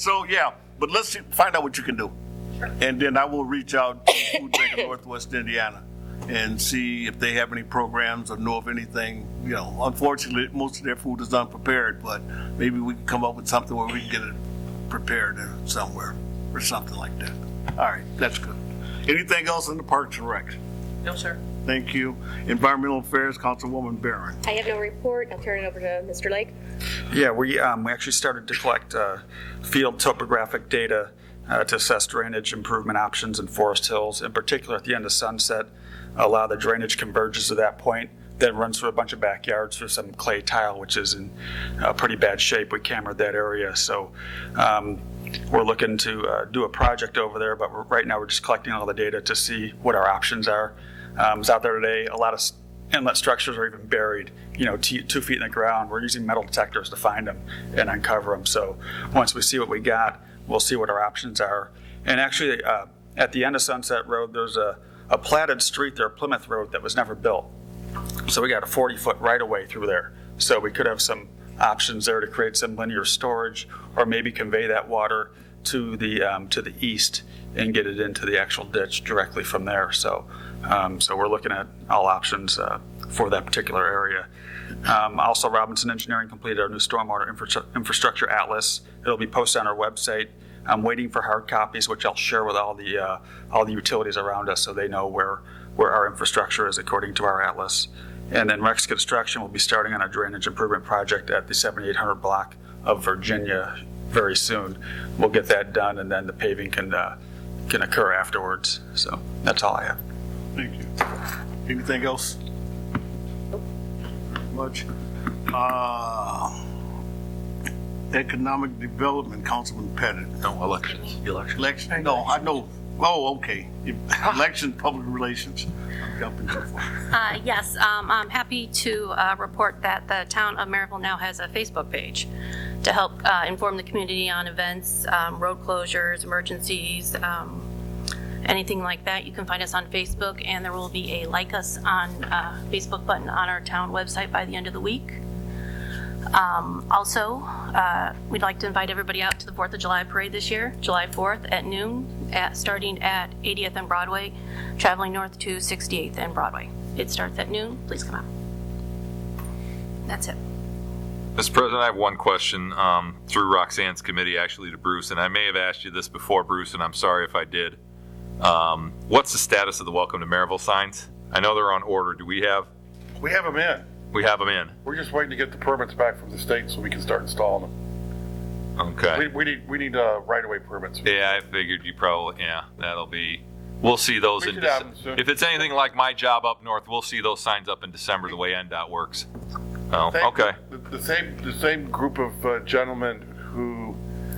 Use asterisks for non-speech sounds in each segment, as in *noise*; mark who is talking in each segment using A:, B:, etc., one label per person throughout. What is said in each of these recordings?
A: So yeah, but let's see, find out what you can do, and then I will reach out to Food Bank of Northwest Indiana and see if they have any programs or know of anything. You know, unfortunately, most of their food is unprepared, but maybe we can come up with something where we can get it prepared somewhere or something like that. All right, that's good. Anything else in the Parks and Rec?
B: No, sir.
A: Thank you. Environmental Affairs, Councilwoman Barron.
C: I have no report. I'll turn it over to Mr. Lake.
D: Yeah, we, um, we actually started to collect, uh, field topographic data, uh, to assess drainage improvement options in Forest Hills, in particular at the end of Sunset. A lot of the drainage converges to that point, then runs through a bunch of backyards through some clay tile, which is in, uh, pretty bad shape. We cambered that area, so, um, we're looking to, uh, do a project over there, but we're- right now we're just collecting all the data to see what our options are. Um, I was out there today, a lot of s- inlet structures are even buried, you know, t- two feet in the ground. We're using metal detectors to find them and uncover them. So once we see what we got, we'll see what our options are. And actually, uh, at the end of Sunset Road, there's a, a platted street there, Plymouth Road, that was never built. So we got a 40-foot right-of-way through there. So we could have some options there to create some linear storage or maybe convey that water to the, um, to the east and get it into the actual ditch directly from there. So, um, so we're looking at all options uh, for that particular area. Um, Also, Robinson Engineering completed our new stormwater infra- infrastructure atlas. It'll be posted on our website. I'm waiting for hard copies, which I'll share with all the, uh, all the utilities around us so they know where, where our infrastructure is according to our atlas. And then Rex Construction will be starting on a drainage improvement project at the 7800 block of Virginia very soon. We'll get that done and then the paving can, uh, can occur afterwards. So that's all I have.
A: Thank you. Anything else? Much. Uh, Economic Development, Councilman Pettit.
E: No, elections, elections.
A: Election, no, I know, oh, okay. Election, Public Relations. I'm jumping too far.
F: Uh, Yes, um, I'm happy to uh, report that the town of Maryville now has a Facebook page to help uh, inform the community on events, um, road closures, emergencies, um, anything like that. You can find us on Facebook, and there will be a like us on uh, Facebook button on our town website by the end of the week. Um, Also, uh, we'd like to invite everybody out to the Fourth of July Parade this year, July 4th at noon, at- starting at 80th and Broadway, traveling north to 68th and Broadway. It starts at noon. Please come out. That's it.
E: Mr. President, I have one question um, through Roxanne's committee, actually, to Bruce, and I may have asked you this before, Bruce, and I'm sorry if I did. Um, What's the status of the Welcome to Maryville signs? I know they're on order. Do we have,
G: We have them in.
E: we have them in?
G: We're just waiting to get the permits back from the state so we can start installing them. We,
E: Okay.
G: we need, we need, uh, right-of-way permits.
E: Yeah, I figured you probably, yeah, that'll be, we'll see those
G: We
E: in,
G: should have 'em
E: Dece-
G: soon.
E: if it's anything like my job up north, we'll see those signs up in December, the way NDOT works. Oh,
G: Thank-
E: okay.
G: The, the same, the same group of uh, gentlemen who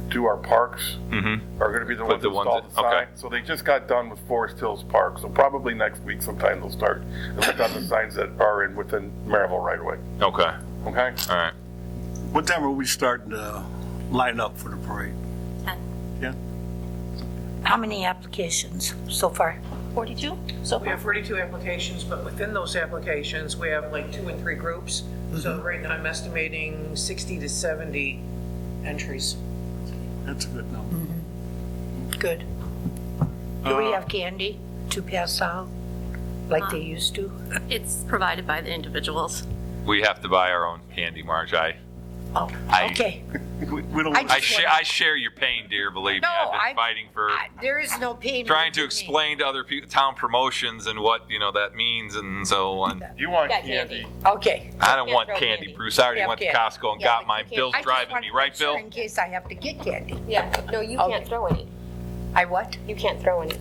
G: do our parks
E: Mhm.
G: are gonna be the
E: But
G: ones
E: the
G: that
E: ones
G: install the
E: that- okay.
G: sign. So they just got done with Forest Hills Park, so probably next week sometime they'll start, they'll put down the signs that are in within Maryville right-of-way,
E: Okay, all
G: okay?
E: right.
A: What time are we starting to line up for the parade?
H: How many applications so far?
F: 42? So
B: We have 42 applications, but within those applications, we have like two and three groups. So right now, I'm estimating 60 to 70 entries.
A: That's a good number.
H: Good. Do
E: Uh,
H: we have candy to pass out like they used to?
F: It's provided by the individuals.
E: We have to buy our own candy, Marge. I,
H: Oh,
E: I- *laughs*
H: okay.
A: We we don't,
H: I
E: I,
A: want-
H: just-
E: share,
H: wanna-
E: I share your pain, dear. Believe
H: No,
E: me, I've been
H: I'm-
E: fighting for
H: I- There is no payment.
E: trying to
H: me.
E: explain to other people town promotions and what you know that means and so on.
G: You want
C: Got
G: candy.
C: candy.
H: Okay.
E: I don't want
C: throw
E: candy,
C: candy.
E: Bruce. I already
H: Yeah,
E: went
H: okay.
E: to Costco and
C: Yeah,
E: got
C: but
E: mine.
C: you can't-
E: Bill's
H: I just
E: driving
H: wanted
E: me,
H: to
E: right,
H: make sure
E: Bill?
H: In case I have to get candy.
C: Yeah, no,
B: Oh.
C: you
H: Okay.
C: can't throw any.
H: I what?
C: You can't throw any.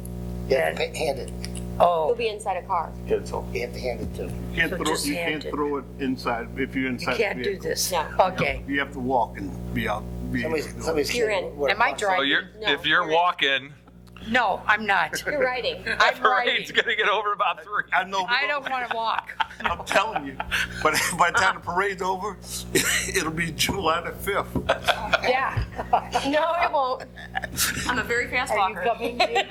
I: Yeah, pa- hand it,
C: You'll
H: Oh,
C: be inside a car.
I: you have to hand it to them.
A: you can't
H: So
A: throw,
H: just
A: you
H: hand
A: can't
H: it.
A: throw it inside, if you're
H: you
A: inside the
H: can't do
A: vehicle.
H: this. *laughs*
C: No.
H: Okay.
A: You have to walk and be out. be-
I: Somebody's, somebody's.
C: You're
I: kid
C: in.
I: would-
H: Am I
I: would-
H: driving?
E: So Oh, you're
C: No,
E: if you're
C: you're-
E: walking, *laughs*
H: No, I'm not.
C: You're writing.
H: I'm writing.
E: Parade's gonna get over about three.
A: I know.
H: I don't want
I: *laughs*
H: to walk.
A: I'm telling you, but *laughs* by the time the parade's over, *laughs* it'll be July the fifth.
I: *laughs*
H: Yeah.
C: No, it won't.
F: I'm a very fast
H: Are you
F: walker.
H: coming? Dave?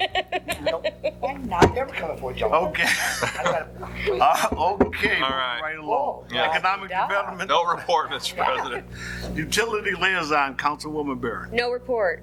I: Nope,
H: I'm not.
I: never coming for a job.
A: Okay.
I: I gotta-
A: Uh, okay. moving
E: right.
A: Right along.
H: Yeah.
A: Economic
H: Yeah.
A: development,
E: No report, Mr. President.
A: utility liaison, Councilwoman Barron.
C: No report.